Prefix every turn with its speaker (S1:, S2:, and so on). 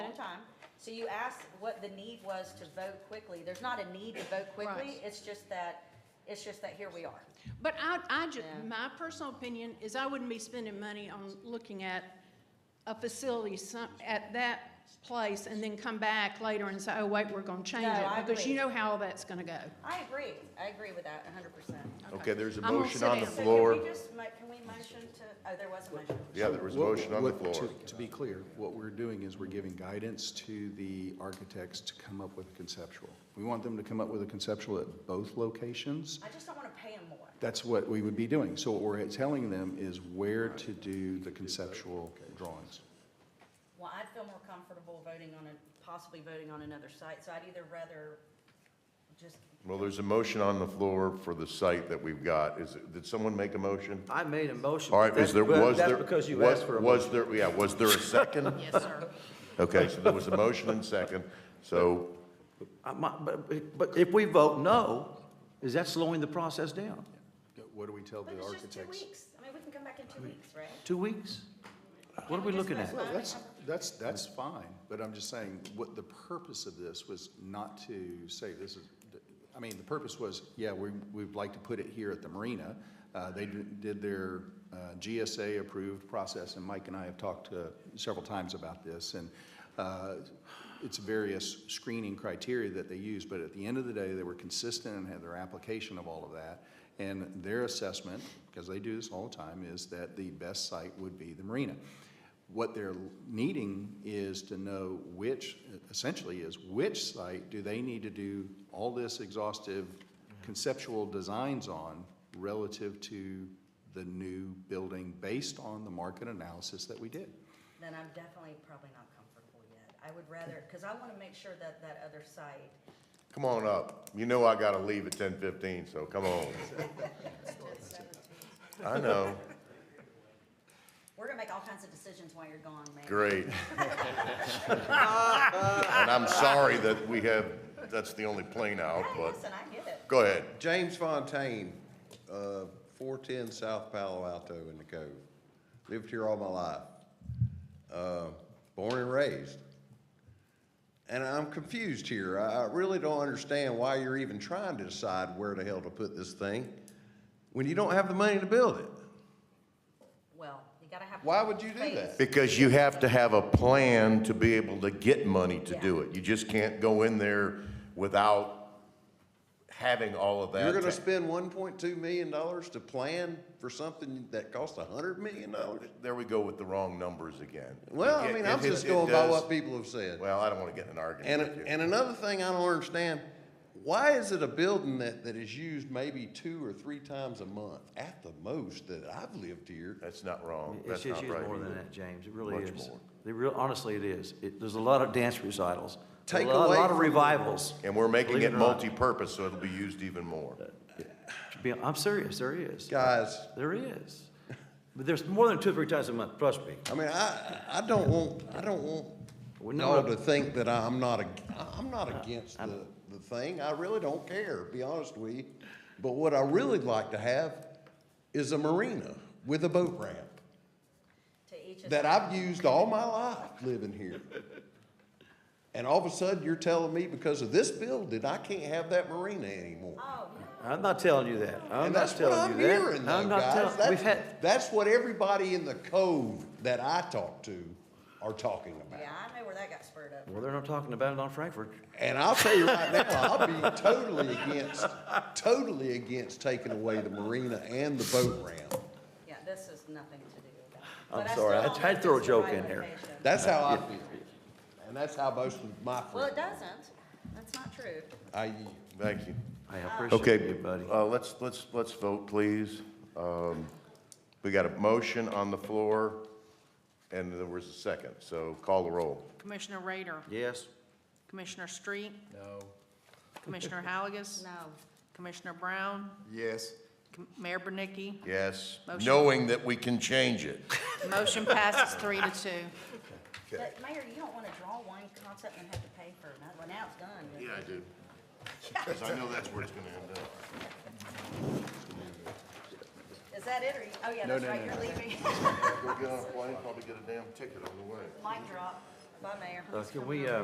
S1: time. So you asked what the need was to vote quickly. There's not a need to vote quickly.
S2: Right.
S1: It's just that, it's just that here we are.
S2: But I, I ju-
S1: Yeah.
S2: my personal opinion is I wouldn't be spending money on looking at a facility some, at that place and then come back later and say, oh, wait, we're gonna change
S1: No,
S2: it.
S1: I
S2: Because you
S1: agree.
S2: know how all that's gonna go.
S1: I agree. I agree with that hundred percent.
S3: Okay, there's a
S2: I'm gonna
S3: motion
S2: sit
S3: on the
S2: down.
S1: So
S3: floor.
S1: Can we just, mo- can we motion to, oh, there was a motion.
S3: Yeah, there was a
S4: What-
S3: motion on the
S4: what-
S3: floor.
S4: to- To be clear, what we're doing is we're giving guidance to the architects to come up with a conceptual. We want them to come up with a conceptual at both locations.
S1: I just don't want to pay him more.
S4: That's what we would be doing. So what we're telling them is where to do the conceptual drawings.
S1: Well, I'd feel more comfortable voting on a, possibly voting on another site, so I'd either rather just,
S3: Well, there's a motion on the floor for the site that we've got. Is, it- did someone make a motion?
S5: I made a motion.
S3: All right,
S5: but
S3: is
S5: that-
S3: there,
S5: but
S3: was there?
S5: That's because you
S3: was-
S5: asked for a
S3: Was
S5: motion.
S3: there, yeah, was there a second?
S2: Yes, sir.
S3: Okay, so there was a motion and second, so,
S5: I might- But but if we vote no, is that slowing the process down?
S4: What do we tell
S1: but
S4: the
S1: it's just two
S4: architects?
S1: weeks. I mean, we can come back in two weeks, right?
S5: Two weeks? What are we looking at?
S4: Well, that's, that's, that's fine, but I'm just saying, what the purpose of this was not to say this is, I mean, the purpose was, yeah, we, we'd like to put it here at the marina. Uh, they did did their uh, GSA-approved process, and Mike and I have talked uh, several times about this, and uh, it's various screening criteria that they use, but at the end of the day, they were consistent and had their application of all of that. And their assessment, because they do this all the time, is that the best site would be the marina. What they're needing is to know which, essentially, is which site do they need to do all this exhaustive conceptual designs on relative to the new building based on the market analysis that we did.
S1: Then I'm definitely probably not comfortable yet. I would rather, because I want to make sure that that other site,
S3: come on up. You know I gotta leave at ten fifteen, so come on. I know,
S1: we're going to make all kinds of decisions while you're gone, man.
S3: great. And I'm sorry that we have, that's the only plane out,
S1: Hey,
S3: but,
S1: listen, I get it.
S3: go ahead.
S6: James Fontaine, uh, 410 South Palo Alto in the Cove. Lived here all my life. Uh, Born and raised. And I'm confused here. I I really don't understand why you're even trying to decide where the hell to put this thing when you don't have the money to build it.
S1: Well, you got to have.
S6: Why would you do
S1: faith.
S6: that?
S3: Because you have to have a plan to be able to get money to do
S1: Yeah.
S3: it. You just can't go in there without having all of that.
S6: You're gonna
S3: ta-
S6: spend 1.2 million dollars to plan for something that costs 100 million dollars?
S3: There we go with the wrong numbers again.
S6: Well, I
S3: It-
S6: mean,
S3: it-
S6: I'm
S3: it-
S6: just
S3: it
S6: going by
S3: does-
S6: what people have said.
S3: Well, I don't want to get in an
S6: And,
S3: argument with you.
S6: and another thing I don't understand, why is it a building that, that is used maybe two or three times a month at the most that I've lived here?
S3: That's not wrong.
S5: It's
S3: That's
S5: just
S3: not
S5: used
S3: right.
S5: more than that, James. It really
S3: Much
S5: is.
S3: more.
S5: They real, honestly, it is. It, there's a lot of dance recitals.
S6: Take
S5: A lot,
S6: away
S5: a lot of
S6: from-
S5: revivals.
S3: And we're making
S5: Believe
S3: it
S5: or not.
S3: multi-purpose, so it'll be used even more.
S5: Be- I'm serious, there is.
S6: Guys,
S5: There is. But there's more than two or three times a month, trust me.
S6: I mean, I, I don't want, I don't
S5: Well,
S6: want
S5: no,
S6: y'all
S5: no.
S6: to think that I'm not, ag- I'm not against the, the thing. I really don't care, be honest with you. But what I really like to have is a marina with a boat ramp
S1: To each his.
S6: that I've used all my life living here. And all of a sudden, you're telling me because of this building, I can't have that marina anymore?
S1: Oh, no.
S5: I'm not telling you that. I'm not
S6: And that's what
S5: telling
S6: I'm
S5: you that.
S6: hearing
S5: I'm
S6: though,
S5: not
S6: guys.
S5: telling- We've
S6: That's,
S5: had,
S6: that's what everybody in the cove that I talk to are talking about.
S1: Yeah, I know where that got spurred up.
S5: well, they're not talking about it on Frankfurt.
S6: And I'll tell you right now, I'll be totally against, totally against taking away the marina and the boat ramp.
S1: Yeah, this has nothing to do with that.
S5: I'm
S1: But I
S5: sorry,
S1: still
S5: I
S1: don't
S5: tried to
S1: think
S5: throw a
S1: it's the
S5: joke
S1: right
S5: in here.
S1: location.
S6: That's how I feel. And that's how most of my
S1: Well, it
S6: friends,
S1: doesn't. That's not true.
S6: I yield.
S3: Thank you.
S5: I appreciate
S3: Okay,
S5: you, buddy.
S3: uh, let's, let's, let's vote, please. Um, We got a motion on the floor, and there was a second, so call the roll.
S7: Commissioner Rader,
S5: Yes,
S7: Commissioner Street? No. Commissioner Halagus?
S1: No.
S7: Commissioner Brown?
S3: Yes.
S7: Com- Mayor Bernicki?
S3: Yes,
S7: Motion.
S3: knowing that we can change it.
S7: Motion passes three to two.
S1: But Mayor, you don't want to draw one concept and have to pay for another. Well, now it's done.
S3: Yeah, I do. Because I know that's where it's going to end up.
S1: Is that it or, you- oh yeah, that's right, you're leaving.
S3: Go get on a plane, probably get a damn ticket on the way.
S1: Mic drop. Bye, Mayor.
S5: Uh,
S1: It's
S5: Can
S1: coming
S5: we,
S1: up.
S5: uh,